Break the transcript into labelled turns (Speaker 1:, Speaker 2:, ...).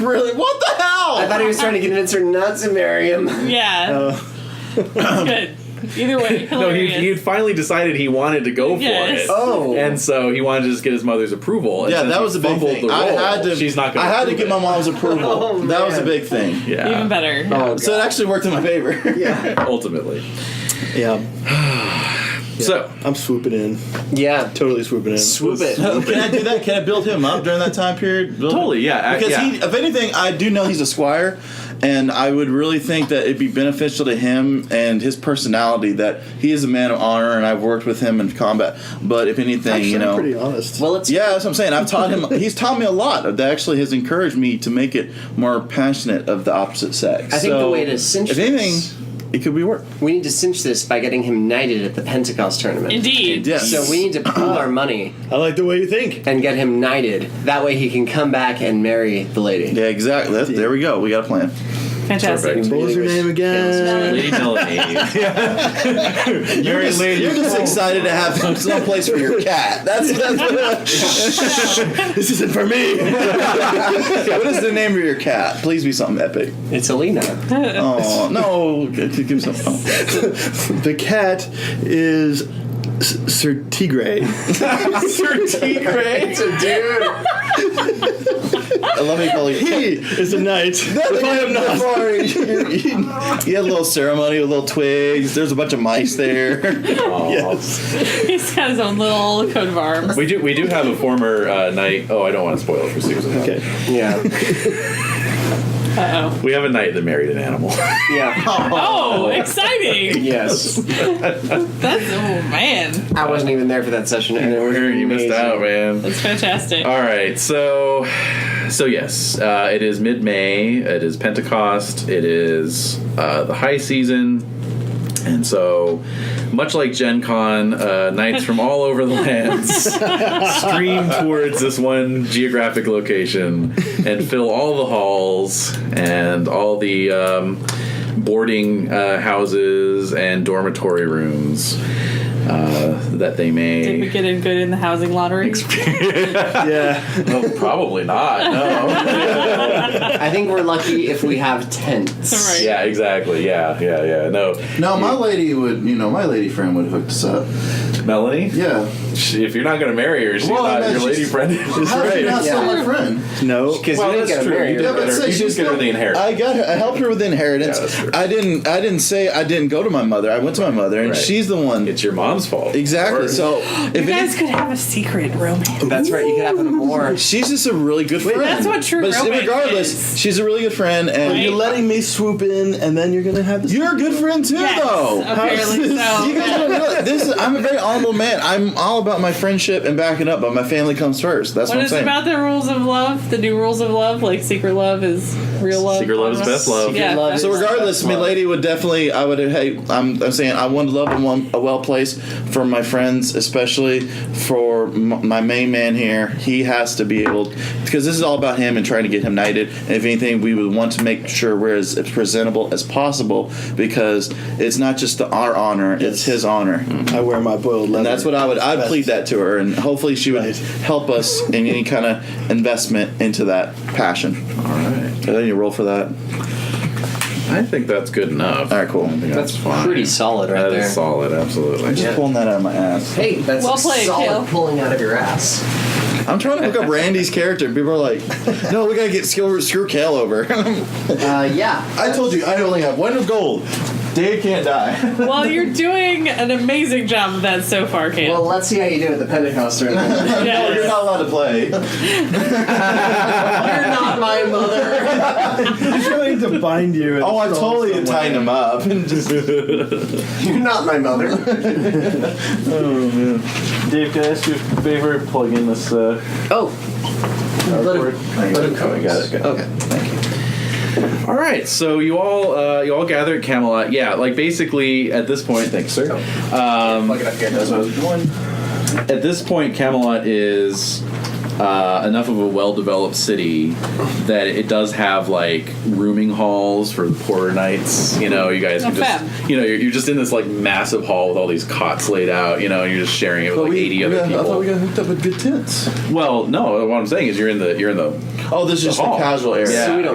Speaker 1: Really? What the hell?
Speaker 2: I thought he was trying to convince her not to marry him.
Speaker 3: Yeah,
Speaker 1: Uh,
Speaker 3: good. Either way,
Speaker 4: No, he,
Speaker 3: hilarious.
Speaker 4: he'd finally decided he wanted to go
Speaker 3: Yes.
Speaker 4: for it.
Speaker 2: Oh.
Speaker 4: And so he wanted to just get his mother's approval. And
Speaker 1: yeah,
Speaker 4: since
Speaker 1: that
Speaker 4: he
Speaker 1: was a big
Speaker 4: fumbled
Speaker 1: thing.
Speaker 4: the
Speaker 1: I
Speaker 4: role,
Speaker 1: had to.
Speaker 4: She's not.
Speaker 1: I
Speaker 4: gonna
Speaker 1: had to
Speaker 4: approve
Speaker 1: get my
Speaker 4: it.
Speaker 1: mom's approval.
Speaker 2: Oh,
Speaker 1: that was a
Speaker 2: man.
Speaker 1: big thing.
Speaker 4: Yeah.
Speaker 3: Even better.
Speaker 2: Oh,
Speaker 1: So it actually worked in my favor.
Speaker 2: yeah.
Speaker 4: Ultimately.
Speaker 5: Yeah,
Speaker 4: So
Speaker 5: I'm swooping in,
Speaker 2: Yeah.
Speaker 5: totally swooping in.
Speaker 2: Swoop it.
Speaker 1: Can I do that? Can I build him up during that time period? Build
Speaker 4: Totally, yeah, I-
Speaker 1: Because
Speaker 4: yeah.
Speaker 1: he, if anything, I do know he's a squire, and I would really think that it'd be beneficial to him and his personality that he is a man of honor, and I've worked with him in combat. But if anything,
Speaker 5: Actually,
Speaker 1: you
Speaker 5: I'm
Speaker 1: know,
Speaker 5: pretty honest.
Speaker 2: Well, it's
Speaker 1: yeah, that's what I'm saying. I've taught him. He's taught me a lot. That actually has encouraged me to make it more passionate of the opposite sex.
Speaker 2: I think the
Speaker 1: So,
Speaker 2: way to cinch
Speaker 1: if
Speaker 2: this-
Speaker 1: anything, it could be work.
Speaker 2: we need to cinch this by getting him knighted at the Pentecost tournament.
Speaker 3: Indeed.
Speaker 1: Yes.
Speaker 2: So we need to pool our money
Speaker 5: I like the way you think.
Speaker 2: and get him knighted. That way he can come back and marry the lady.
Speaker 1: Yeah, exactly. That's, there we go. We got a plan.
Speaker 3: Fantastic.
Speaker 4: Perfect.
Speaker 5: What was her name again?
Speaker 4: Lady Melanie.
Speaker 1: You're just, you're just excited to have some place for your cat. That's, that's this isn't for me. what is the name of your cat? Please be something epic.
Speaker 2: It's Alina.
Speaker 1: Oh no, give give me some. Oh.
Speaker 5: The cat is S- Sir Tigray.
Speaker 2: It's a dude.
Speaker 1: Let me call you.
Speaker 5: he is a knight.
Speaker 1: If I am not sorry. you had a little ceremony with little twigs. There's a bunch of mice there.
Speaker 3: He's got his own little coat of arms.
Speaker 4: we do we do have a former uh, knight. Oh, I don't want to spoil it for Susan.
Speaker 5: Okay.
Speaker 2: Yeah.
Speaker 3: Uh oh.
Speaker 4: We have a knight that married an animal.
Speaker 2: Yeah.
Speaker 3: Oh, exciting!
Speaker 2: Yes.
Speaker 3: That's oh man,
Speaker 2: I wasn't even there for that session. And it was
Speaker 4: you missed
Speaker 2: amazing.
Speaker 4: out, man.
Speaker 3: that's fantastic.
Speaker 4: All right, so so yes, uh, it is mid May. It is Pentecost. It is uh, the high season, and so much like Gen Con, uh, knights from all over the lands stream towards this one geographic location and fill all the halls and all the um, boarding uh, houses and dormitory rooms uh, that they may.
Speaker 3: Did we get in good in the housing lottery?
Speaker 5: Yeah.
Speaker 4: Oh, probably not. No.
Speaker 2: I think we're lucky if we have tents.
Speaker 3: Right.
Speaker 4: yeah, exactly. Yeah, yeah, yeah. No,
Speaker 1: No, my lady would. You know, my lady friend would hook us up.
Speaker 4: Melanie.
Speaker 1: Yeah,
Speaker 4: She, if you're not gonna marry her, she's
Speaker 1: Well, I
Speaker 4: not
Speaker 1: meant
Speaker 4: your lady
Speaker 1: she's-
Speaker 4: friend.
Speaker 1: How is she
Speaker 5: right.
Speaker 1: not still my friend?
Speaker 5: No.
Speaker 2: Because you didn't get a married.
Speaker 4: You did,
Speaker 1: Yeah, but
Speaker 4: get her-
Speaker 1: say
Speaker 4: you
Speaker 1: she's
Speaker 4: did get her
Speaker 1: not-
Speaker 4: the inheritance.
Speaker 1: I got her, I helped her with inheritance.
Speaker 4: Yeah, that's true.
Speaker 1: I didn't I didn't say I didn't go to my mother. I went to my mother and
Speaker 4: Right.
Speaker 1: she's the one.
Speaker 4: it's your mom's fault.
Speaker 1: exactly.
Speaker 4: Or-
Speaker 1: So if
Speaker 3: You guys
Speaker 1: it,
Speaker 3: could have a secret romance.
Speaker 2: That's right. You could have an award.
Speaker 1: she's just a really good friend.
Speaker 3: that's what true
Speaker 1: But she-
Speaker 3: romance
Speaker 1: regardless,
Speaker 3: is.
Speaker 1: she's a really good friend and
Speaker 3: Right.
Speaker 5: You're letting me swoop in, and then you're gonna have this.
Speaker 1: you're a good friend too
Speaker 3: Yes,
Speaker 1: though.
Speaker 3: apparently so.
Speaker 1: You guys don't realize this is I'm a very honorable man. I'm all about my friendship and backing up, but my family comes first. That's what,
Speaker 3: What
Speaker 1: I'm
Speaker 3: is it
Speaker 1: saying.
Speaker 3: about the rules of love? The new rules of love, like secret love is real love.
Speaker 4: Secret love is best love.
Speaker 3: Yeah.
Speaker 2: love is-
Speaker 1: So regardless, my lady would definitely. I would. Hey, I'm. I'm saying I want to love and want a well place for my friends, especially for m- my main man here. He has to be able because this is all about him and trying to get him knighted. And if anything, we would want to make sure we're as, as presentable as possible because it's not just the, our honor; it's his honor.
Speaker 5: I wear my boiled leather.
Speaker 1: And that's what I would. I'd plead that to her, and hopefully she would
Speaker 5: Right.
Speaker 1: help us in any kind of investment into that passion.
Speaker 4: All right.
Speaker 1: And then you roll for that.
Speaker 4: I think that's good enough.
Speaker 1: All right, cool.
Speaker 2: That's pretty solid right
Speaker 4: That
Speaker 2: there.
Speaker 4: is solid. Absolutely.
Speaker 1: I'm just pulling that out of my ass.
Speaker 2: Hey, that's
Speaker 3: Well played,
Speaker 2: solid
Speaker 3: Kale.
Speaker 2: pulling out of your ass.
Speaker 1: I'm trying to look up Randy's character. People are like, "No, we gotta get screw, screw Cal over."
Speaker 2: Uh, yeah.
Speaker 1: I told you, I only have one of gold. Dave can't die.
Speaker 3: Well, you're doing an amazing job of that so far, Kate.
Speaker 2: Well, let's see how you do at the Pentecost tournament.
Speaker 3: Yes.
Speaker 1: You're not allowed to play.
Speaker 2: You're not my mother.
Speaker 5: I'm trying to bind you. in
Speaker 1: Oh, I
Speaker 5: a strong
Speaker 1: totally
Speaker 5: somewhere.
Speaker 1: tightened him up. And just
Speaker 2: You're not my mother.
Speaker 4: Dave, can I ask you a favor? Plug in this. Uh,
Speaker 2: Oh. Let him, let him come.
Speaker 4: got it.
Speaker 2: Okay.
Speaker 4: All right, so you all uh, you all gather at Camelot. Yeah, like basically at this point, thanks, sir.
Speaker 5: Oh.
Speaker 4: Um,
Speaker 2: Plug it up here.
Speaker 4: At this point, Camelot is uh, enough of a well-developed city that it does have like rooming halls for the poorer knights. You know, you guys can
Speaker 3: Oh,
Speaker 4: just
Speaker 3: fab.
Speaker 4: you know you're, you're just in this like massive hall with all these cots laid out. You know, and you're just sharing it with
Speaker 5: But
Speaker 4: like
Speaker 5: we-
Speaker 4: 80
Speaker 5: we
Speaker 4: other
Speaker 5: got-
Speaker 4: people.
Speaker 5: I thought we got hooked up with good tents.
Speaker 4: well, no, what I'm saying is you're in the you're in the
Speaker 1: Oh, this is just
Speaker 4: hall.
Speaker 1: a casual area.
Speaker 4: Yeah.
Speaker 2: So we don't